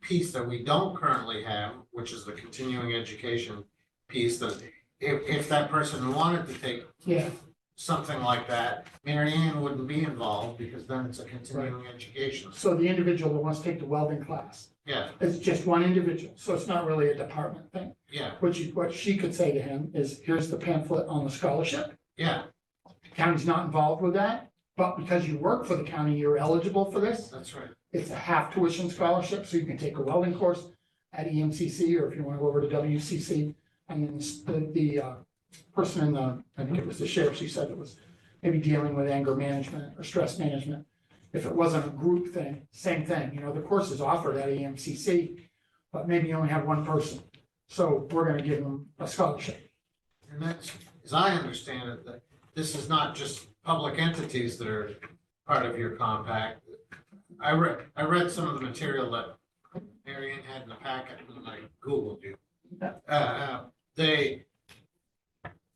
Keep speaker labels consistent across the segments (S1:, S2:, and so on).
S1: piece that we don't currently have, which is the continuing education piece, that if, if that person wanted to take
S2: Yeah,
S1: something like that, Mary Ann wouldn't be involved because then it's a continuing education.
S2: so the individual that wants to take the welding class,
S1: Yeah,
S2: it's just one individual, so it's not really a department thing.
S1: yeah,
S2: What you, what she could say to him is, here's the pamphlet on the scholarship,
S1: yeah,
S2: The county's not involved with that, but because you work for the county, you're eligible for this.
S1: that's right.
S2: It's a half tuition scholarship, so you can take a welding course at E EMCC, or if you want to go over to WCC. And then s- the, the uh, person in the, I think it was the sheriff, she said it was maybe dealing with anger management or stress management. If it wasn't a group thing, same thing, you know, the course is offered at E EMCC, but maybe you only have one person. So we're gonna give them a scholarship.
S1: And that's, as I understand it, that this is not just public entities that are part of your compact. I read, I read some of the material that Mary Ann had in the packet, and I Googled you.
S2: Yeah.
S1: Uh, Uh, they,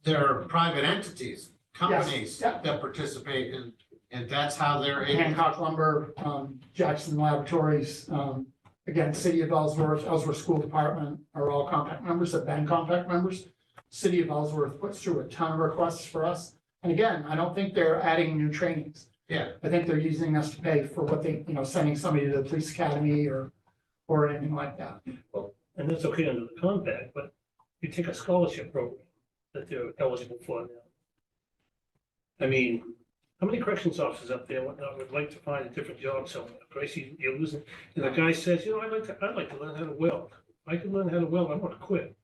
S1: there are private entities, companies
S2: yeah.
S1: that participate in, and that's how they're able.
S2: Hancock Lumber, um, Jackson Laboratories, um, again, City of Ellsworth, Ellsworth School Department are all compact members, have been compact members. City of Ellsworth puts through a ton of requests for us. And again, I don't think they're adding new trainings.
S1: Yeah.
S2: I think they're using us to pay for what they, you know, sending somebody to the police academy or, or anything like that.
S3: and that's okay under the compact, but you take a scholarship program that they're eligible for now. I mean, how many corrections officers up there and whatnot would like to find a different job somewhere? Gracie, you're losing, and the guy says, you know, I'd like to, I'd like to learn how to weld. I could learn how to weld, I want to quit.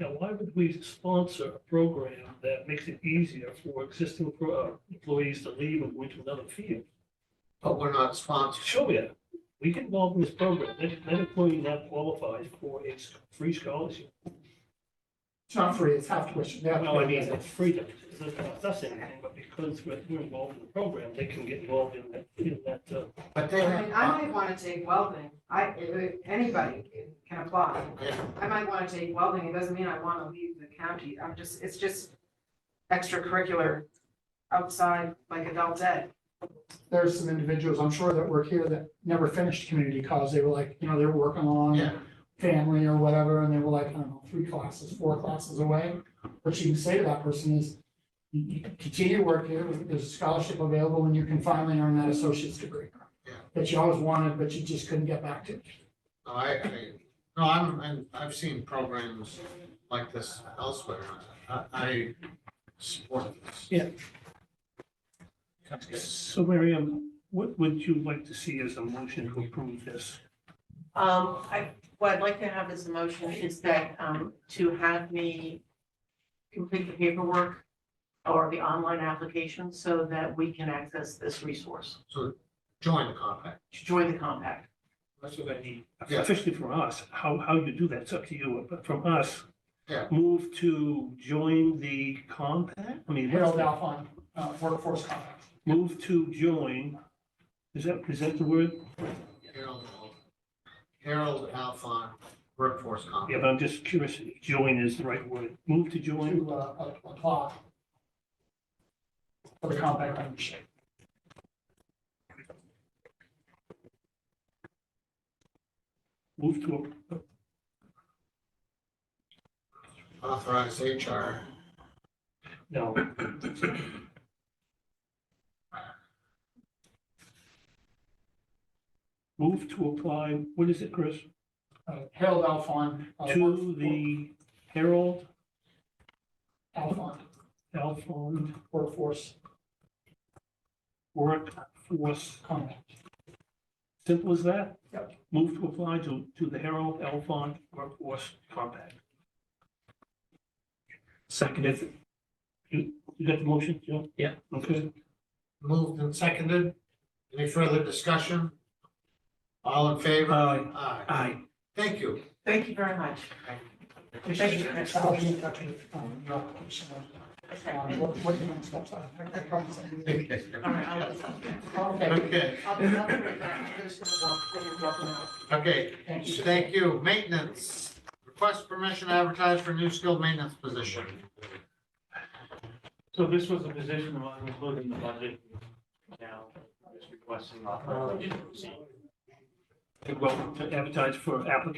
S3: Now, why would we sponsor a program that makes it easier for existing pro- uh, employees to leave and go into another field?
S1: But we're not sponsored.
S3: Sure, yeah. We get involved in this program. That, that employee now qualifies for a s- free scholarship.
S2: It's not free, it's half tuition. They have to
S3: Well, I
S2: pay
S3: mean,
S2: for it.
S3: it's freedom. It doesn't cost us anything, but because we're, we're involved in the program, they can get involved in that, in that, uh,
S1: But they
S4: I
S1: have.
S4: mean, I might wanna take welding, I, anybody can apply.
S1: Yeah.
S4: I might wanna take welding, it doesn't mean I wanna leave the county, I'm just, it's just extracurricular outside, like adult ed.
S2: There's some individuals, I'm sure that work here that never finished community college. They were like, you know, they were working along.
S1: Yeah,
S2: family or whatever, and they were like, I don't know, three classes, four classes away. What you can say to that person is, you, you continue to work here, there's a scholarship available, and you can finally earn that associate's degree.
S1: Yeah.
S2: That you always wanted, but you just couldn't get back to.
S1: no, I, I, no, I'm, I'm, I've seen programs like this elsewhere. I, I support this.
S3: so Mary Ann, what would you like to see as a motion to approve this?
S5: Um, I, what I'd like to have as a motion is that, um, to have me complete the paperwork or the online application so that we can access this resource,
S1: So join the compact.
S5: to join the compact.
S3: That's what I need.
S1: Yeah.
S3: Officially from us, how, how you do that, it's up to you, but from us.
S1: Yeah.
S3: Move to join the compact? I mean, what's
S2: Harold
S3: that?
S2: Alphon, uh, workforce compact.
S3: Move to join. Is that, is that the word?
S1: Harold, Al- Harold Alphon, workforce
S3: Yeah,
S1: compact.
S3: but I'm just curious, if join is the right word. Move to join,
S2: to uh, a- apply for the compact membership.
S3: move to,
S1: Authorize HR.
S3: no. Move to apply, what is it, Chris?
S2: Uh, Harold Alphon. uh,
S3: To
S2: work-
S3: the Herald
S2: Alphon,
S3: Alphon
S2: workforce
S3: Workforce,
S2: compact.
S3: simple as that?
S2: Yep.
S3: Move to apply to, to the Herald Alphon Workforce Compact.
S6: Seconded,
S3: You, you got the motion, Joe?
S6: Yeah.
S3: Okay,
S1: Moved and seconded. Any further discussion? All in favor?
S3: Aye.
S1: Aye.
S6: aye.
S1: Thank you.
S5: Thank you very much. Thank you.
S2: I'll be in touch with, um, your application.
S5: Okay.
S2: Um, What, what the next steps are. Okay.
S1: Okay.
S5: All right, I'll,
S1: Okay,
S5: I'll, I'll, I'm just gonna walk, in and walk out.
S1: okay.
S2: Thank you.
S1: Thank you. Maintenance. Request permission to advertise for new skilled maintenance position.
S7: So this was a position that was included in the budget. Now, just requesting authorization. to proceed.
S3: You're welcome to advertise for applicants